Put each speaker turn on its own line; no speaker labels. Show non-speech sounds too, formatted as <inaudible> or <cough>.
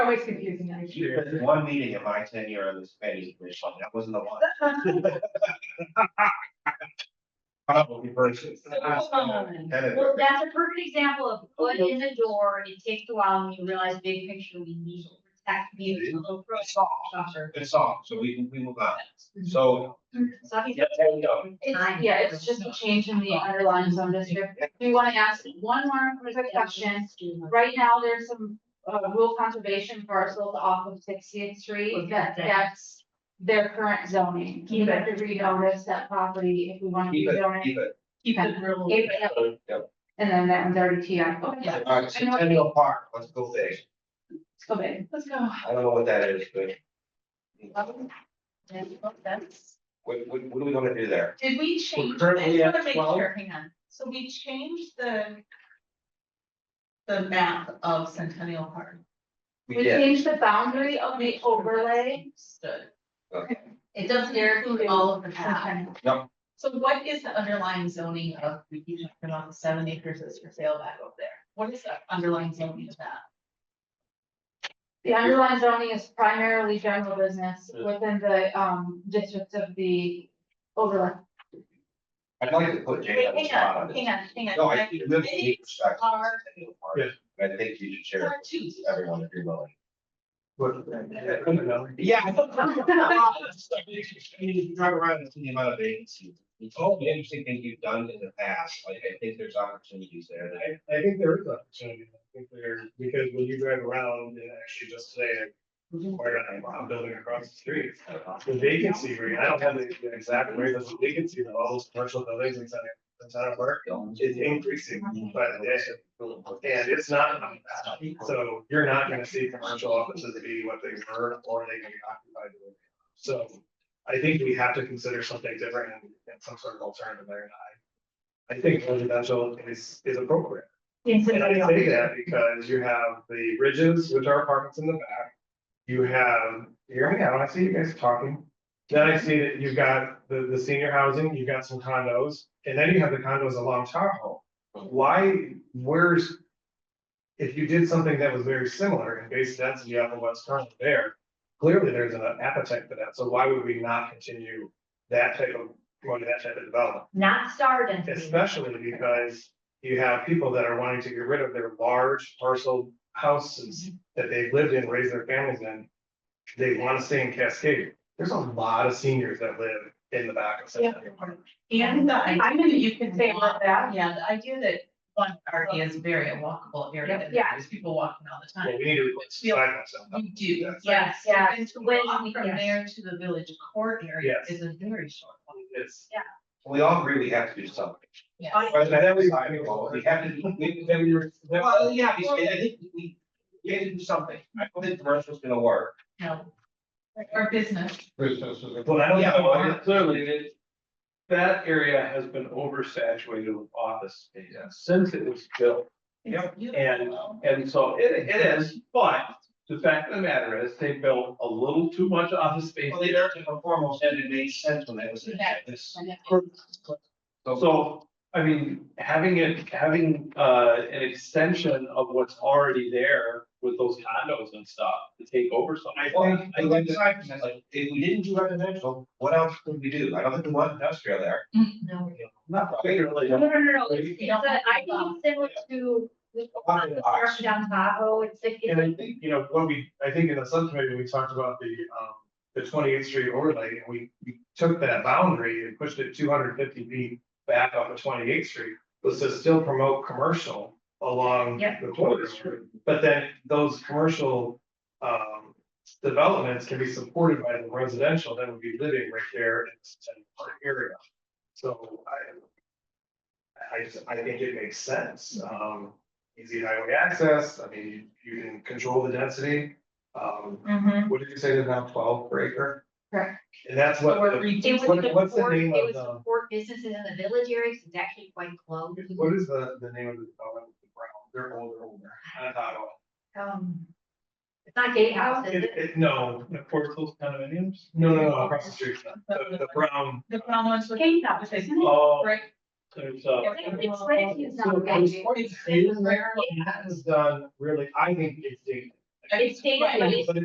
always confusing. I
You
hear.
had one meeting in my tenure on this planning commission, that wasn't the <laughs> one. Probably versus.
So hold on. Well, that's a perfect example of foot in the door, it takes a while, and you realize big picture, we need to protect community, local
It's off,
infrastructure.
it's off, so we, we move on. So,
So I think
yeah, there you go.
It's, yeah, it's just a change in the underlying zone district. We want to ask one more quick question. Right now, there's some uh rural conservation parcels off of Sixtieth Street that that's their current zoning. You have to renotice that property if we want to
Keep it,
rezone it.
keep it.
Keep it rural.
Yep.
And then that one's already TI. Oh, yeah,
All right, Centennial Park, let's go there.
it's go big. Let's go.
I don't know what that is, but what, what, what are we gonna do there?
Did we change?
currently
I just wanna
at
make
12.
sure, Hang on, so we changed the. The map of Centennial Park.
We changed the boundary of the overlay.
Stood.
Okay.
It doesn't include all of the map.
Okay.
So what is the underlying zoning of, we usually put on the seven acres that's for sale back over there? What is the underlying zoning of that?
The underlying zoning is primarily general business within the um districts of the
<laughs>
overlay.
I'd like to put Jay on the
Wait,
spot on this.
Hang on, hang on.
No, I think we have to be respectful of
Are-
Centennial Park, and I think you should share it
Are two.
with everyone if you're willing.
Well,
Yeah. I thought- I mean, if you Drive around and see the amount of vacancies. It's all the interesting things you've done in the past, like I think there's opportunities there that I-
I, I think there is opportunity, I think there, because when you drive around, and actually just today, I quite a building across the street. The vacancy rate, I don't have the exact rate of the vacancy of all those commercial buildings in Center, in Center Park, is increasing by the day. And it's not, so you're not gonna see commercial offices be what they were, or they can be occupied. So I think we have to consider something different and and some sort of alternative there, and I, I think residential is, is appropriate. And I say that because you have the ridges, which are apartments in the back. You have, hear me out, I see you guys talking. Then I see that you've got the, the senior housing, you've got some condos, and then you have the condos along Tahoe. Why, where's? If you did something that was very similar in base density up in what's currently there, clearly there's an appetite for that, so why would we not continue that type of, going to that type of development?
Not star density.
Especially because you have people that are wanting to get rid of their large parcel houses that they've lived in, raised their families in. They want to stay in Cascade. There's a lot of seniors that live in the back of Centennial Park.
And the idea
I'm
that
gonna-
you can
say
say
about that.
Yeah, the idea that one already is very a walkable area, and
Yeah.
there's people walking all the
Well,
time.
we need to replace sidewalks.
You do,
Yes.
yes,
Yeah.
and to
When
walk
we-
from
yes.
there to the village court area
Yes.
is a very short walk.
It's,
we all agree we have to do something.
Yes.
But that was, I mean, well, we have to, do- we, then we were. Well, yeah, we- I think we, we have to do something. I don't think commercial's gonna work.
No. Or business.
well, I don't
Yeah, well, I-
know.
Clearly, it- that area has been oversaturated with office space
Yeah.
since it was built.
Yep,
and- And so it, it is, but the fact of the matter is, they built a little too much office space
Well, they
there.
don't have a formal and it made sense when that was. in this.
So, I mean, having it, having, uh, an extension of what's already there with those condos and stuff to take over some.
I think, I think, aside from that, like, if we didn't do residential, what else could we do? I don't think we want industrial there.
No.
Not
No,
particularly.
no, no, no, it's,
Maybe.
it's, a- Mm-hmm. I think it's similar to the construction on Tahoe, it's like.
And I think, you know, what we, I think in the subcommittee, we talked about the, um, the twenty eighth street overlay, and we, we took that boundary and pushed it two hundred fifty feet back off of twenty eighth street, was to still promote commercial along
Yep.
the quarter street. But then those commercial, um, developments can be supported by the residential that would be living right there in this park area. So I, I just, I think it makes sense, um, easy highway access, I mean, you you can control the density. Um,
Mhm.
what did you say, there's now twelve per acre?
Correct.
And that's what,
Or
the-
redo.
It was
What- what's the
support, it
name of
was
the-
support businesses in the village areas, it's actually quite close.
what is the, the name of the development, with the brown, they're older, older, I don't know.
Um, It's not gatehouse, is
It,
it?
it, no,
The Portals condominiums?
no, no, no, across the street, the, the brown,
The brown ones with.
Gatehouse,
with the-
isn't it?
Oh,
Right.
there's, uh.
I think It's right, it's not
So there's
gatehouse.
quite a few in there, and that is done, really, I think it's dated. It's stated, but it's